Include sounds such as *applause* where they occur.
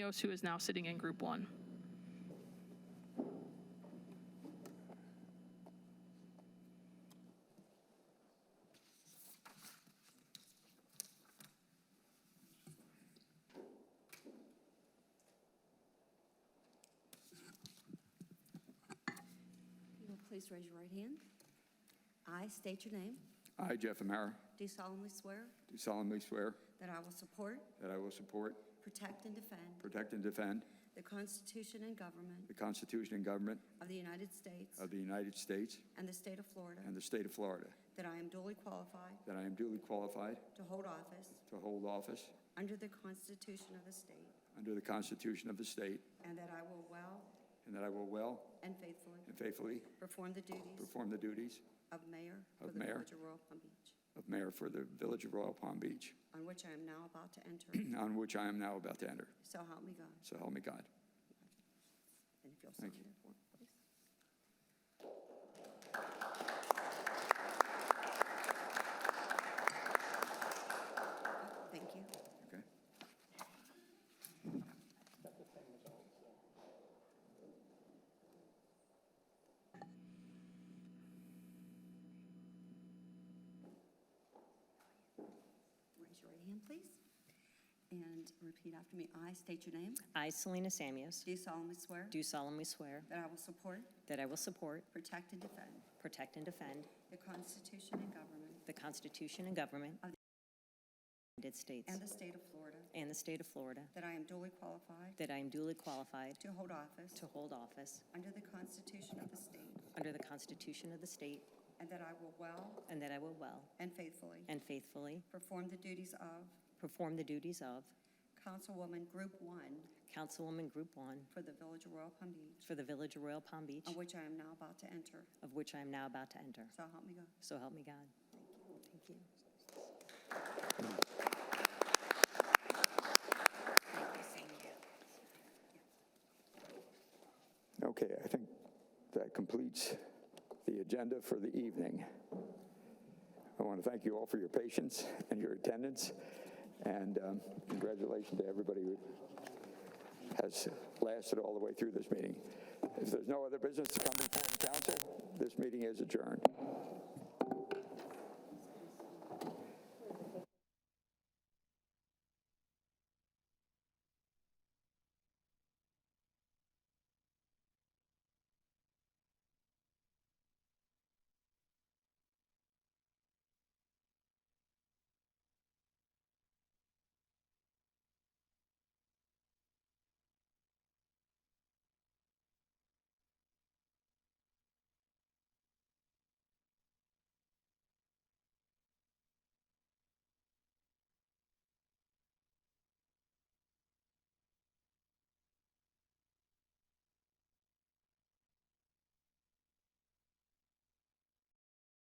Burgos, who is now sitting in Group 1. You will please raise your right hand. I state your name. I, Jeff Amara, Do solemnly swear do solemnly swear that I will support, that I will support, protect, and defend protect, and defend the Constitution and government the Constitution and government of the United States of the United States and the state of Florida, and the state of Florida, that I am duly qualified that I am duly qualified to hold office to hold office under the Constitution of the state, under the Constitution of the state, and that I will well and that I will well and faithfully and faithfully perform the duties perform the duties of mayor for Of the mayor. village of Royal Palm Beach, of mayor for the village of Royal Palm Beach, on which I am now about to enter. *clears throat* on which I am now about to enter. So help me God. So help me God. And if you'll sign Thank you. there for me, please. Thank you. Okay. Raise your right hand, please, and repeat after me. I state your name. I, Selena Samios, Do solemnly swear do solemnly swear that I will support, that I will support, protect, and defend protect, and defend the Constitution and government the Constitution and government of Of the United States and the state of Florida, and the state of Florida, that I am duly qualified that I am duly qualified to hold office to hold office under the Constitution of the state, under the Constitution of the state, and that I will well and that I will well and faithfully and faithfully perform the duties of perform the duties of Councilwoman Group One Councilwoman Group One for the Village of Royal Palm Beach, for the Village of Royal Palm Beach, on which I am now about to enter. of which I am now about to enter. So help me God. So help me God. Thank you. Thank you. Okay, I think that completes the agenda for the evening. I want to thank you all for your patience and your attendance, and um, congratulations to everybody who has lasted all the way through this meeting. If there's no other business to come before the council, this meeting is adjourned.